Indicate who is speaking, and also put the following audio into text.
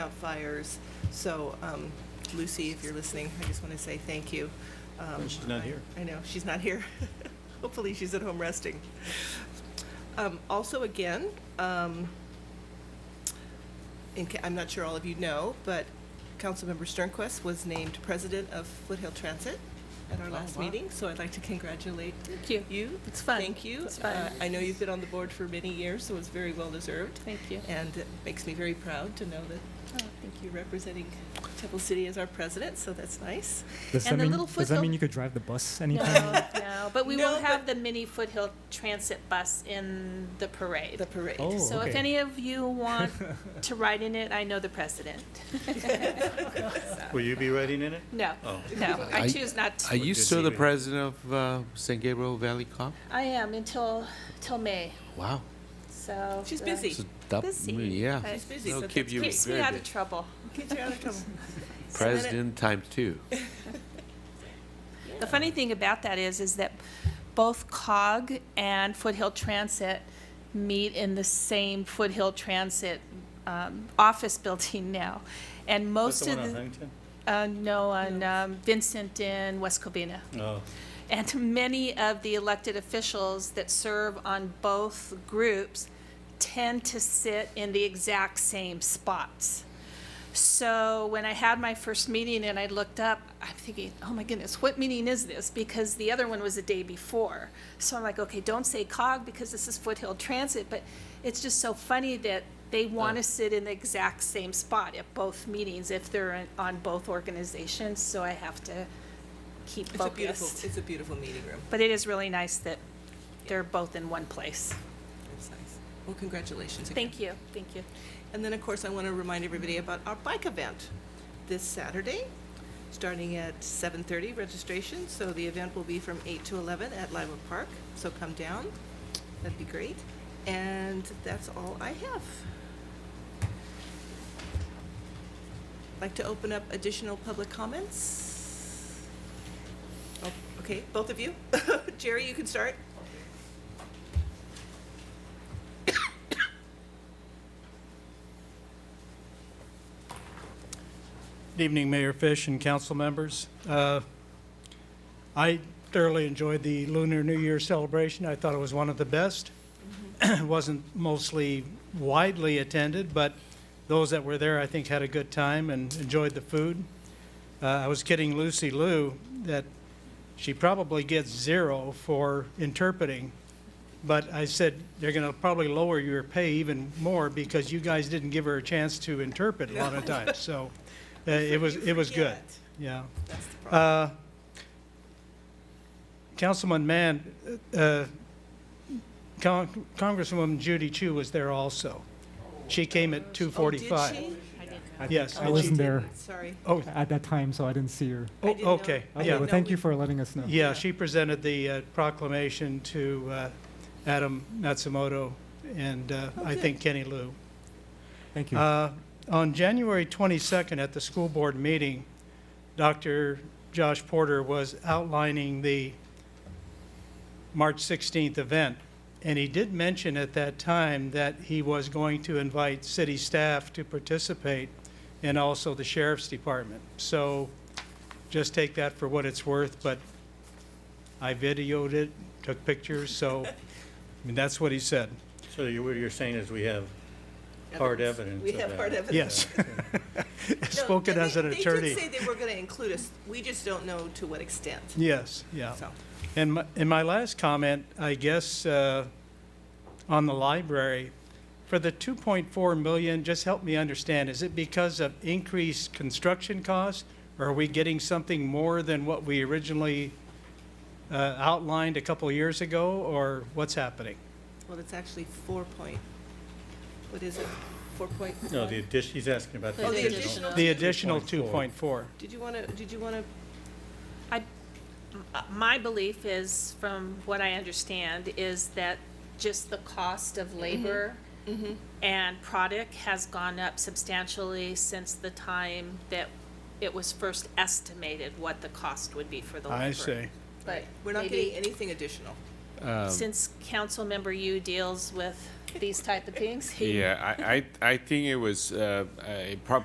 Speaker 1: out fires. So um, Lucy, if you're listening, I just want to say thank you. Um,
Speaker 2: She's not
Speaker 1: I-
Speaker 2: here.
Speaker 1: I know, she's not here. Hopefully, she's at home resting. Um, Also, again, um, in ca- I'm not sure all of you know, but Councilmember Sternquist was named president of Foothill Transit at our last meeting, so I'd like to congratulate
Speaker 3: Oh, Thank you.
Speaker 1: you.
Speaker 3: It's fun.
Speaker 1: Thank you.
Speaker 3: It's fun.
Speaker 1: Uh, I know you've been on the board for many years, so it's very well-deserved.
Speaker 3: Thank you.
Speaker 1: And it makes me very proud to know that
Speaker 3: Oh, thank
Speaker 1: you're representing Temple City as our president, so that's nice.
Speaker 4: Does
Speaker 3: And
Speaker 4: that
Speaker 3: the
Speaker 4: mean
Speaker 3: little
Speaker 4: does that
Speaker 3: foothill-
Speaker 4: mean you could drive the bus
Speaker 3: you.
Speaker 4: anytime?
Speaker 3: No, no, but we
Speaker 1: No,
Speaker 3: will
Speaker 1: but-
Speaker 3: have the mini foothill transit bus in the parade.
Speaker 1: The parade.
Speaker 4: Oh,
Speaker 3: So if
Speaker 4: okay.
Speaker 3: any of you want to ride in it, I know the president.
Speaker 2: Will you be writing in it?
Speaker 3: No,
Speaker 2: Oh.
Speaker 3: no, I
Speaker 5: I-
Speaker 3: choose not
Speaker 5: Are
Speaker 3: to.
Speaker 5: you
Speaker 2: Good
Speaker 5: still the
Speaker 2: TV.
Speaker 5: president of uh, San Gabriel Valley Cop?
Speaker 3: I am until, till May,
Speaker 5: Wow.
Speaker 3: so.
Speaker 1: She's
Speaker 3: uh,
Speaker 1: busy.
Speaker 5: it's a dub-
Speaker 3: Busy.
Speaker 5: Mm, Yeah.
Speaker 3: She's
Speaker 1: busy,
Speaker 5: They'll
Speaker 1: so
Speaker 5: keep
Speaker 1: that's-
Speaker 5: you
Speaker 3: Keeps me
Speaker 5: very
Speaker 3: out of
Speaker 5: busy.
Speaker 3: trouble.
Speaker 1: Get you out of trouble.
Speaker 5: President time two.
Speaker 3: The funny thing about that is, is that both COG and Foothill Transit meet in the same Foothill Transit um, office building now. And
Speaker 2: That's
Speaker 3: most
Speaker 2: the
Speaker 3: of
Speaker 2: one on
Speaker 3: the,
Speaker 2: Huntington?
Speaker 3: uh, no, on um, Vincent in West Covina.
Speaker 2: No.
Speaker 3: And many of the elected officials that serve on both groups tend to sit in the exact same spots. So when I had my first meeting and I looked up, I'm thinking, oh my goodness, what meeting is this? Because the other one was the day before. So I'm like, okay, don't say COG because this is Foothill Transit, but it's just so funny that they want
Speaker 1: Oh.
Speaker 3: to sit in the exact same spot at both meetings if they're in- on both organizations, so I have to keep
Speaker 1: It's a beautiful,
Speaker 3: focused.
Speaker 1: it's a beautiful meeting room.
Speaker 3: But it is really nice that they're both in one place.
Speaker 1: It's nice. Well, congratulations again.
Speaker 3: Thank you, thank you.
Speaker 1: And then, of course, I want to remind everybody about our bike event this Saturday, starting at 7:30 registration. So the event will be from 8 to 11 at Lima Park, so come down. That'd be great. And that's all I have. Like to open up additional public comments? Oh, Okay, both of you? Jerry, you can start.
Speaker 6: Good evening, Mayor Fish and council members. Uh, I thoroughly enjoyed the Lunar New Year celebration. I thought it was one of the best. It wasn't mostly widely attended, but those that were there, I think, had a good time and enjoyed the food. Uh, I was kidding Lucy Lou that she probably gets zero for interpreting, but I said, they're going to probably lower your pay even more because you guys didn't give her a chance to interpret a lot of times, so uh, it was,
Speaker 1: You
Speaker 6: it was good,
Speaker 1: forget.
Speaker 6: yeah.
Speaker 1: That's the problem.
Speaker 6: Uh, Councilman Mann, uh, Con- Congresswoman Judy Chu was there also. She came at
Speaker 1: Oh,
Speaker 6: 2:45.
Speaker 1: Did
Speaker 6: Yes.
Speaker 4: I
Speaker 6: and she-
Speaker 4: wasn't there
Speaker 1: she? Sorry.
Speaker 6: Oh,
Speaker 4: at that time, so I didn't see her.
Speaker 1: I
Speaker 6: oh,
Speaker 1: didn't know.
Speaker 6: okay,
Speaker 1: I
Speaker 4: Okay,
Speaker 6: yeah.
Speaker 1: didn't
Speaker 4: well,
Speaker 1: know
Speaker 4: thank
Speaker 1: we-
Speaker 4: you for letting us know.
Speaker 6: Yeah, she presented the uh, proclamation to uh, Adam Matsumoto and uh, I
Speaker 1: Oh, good.
Speaker 6: think Kenny Lou.
Speaker 4: Thank you.
Speaker 6: Uh, On January 22nd, at the school board meeting, Dr. Josh Porter was outlining the March 16th event, and he did mention at that time that he was going to invite city staff to participate and also the sheriff's department. So just take that for what it's worth, but I videoed it, took pictures, so, I mean, that's what he said.
Speaker 2: So you, what you're saying is we have hard evidence
Speaker 1: We
Speaker 2: of
Speaker 1: have
Speaker 2: that.
Speaker 1: hard evidence.
Speaker 6: Yes.
Speaker 1: No,
Speaker 6: Spoken
Speaker 1: they-
Speaker 6: as an
Speaker 1: They
Speaker 6: attorney.
Speaker 1: did say they were going to include us. We just don't know to what extent,
Speaker 6: Yes, yeah.
Speaker 1: so.
Speaker 6: And my, and my last comment, I guess, uh, on the library, for the 2.4 million, just help me understand, is it because of increased construction costs? Or are we getting something more than what we originally uh, outlined a couple of years ago? Or what's happening?
Speaker 1: Well, it's actually four point, what is it? Four point?
Speaker 2: No, the addition, he's asking about the
Speaker 1: Oh, the
Speaker 2: additional.
Speaker 1: additional.
Speaker 6: The additional
Speaker 2: 2.4.
Speaker 6: 2.4.
Speaker 1: Did you want to, did you want to,
Speaker 3: I, m- uh, my belief is, from what I understand, is that just the cost
Speaker 1: Mm-hmm.
Speaker 3: of labor and product has gone up substantially since the time that it was first estimated what the cost would be for the library.
Speaker 6: I see.
Speaker 3: But
Speaker 1: we're not getting
Speaker 3: maybe,
Speaker 1: anything additional.
Speaker 3: since council member you deals with these type of things, he
Speaker 7: Yeah, I, I, I think it was, uh, a prob-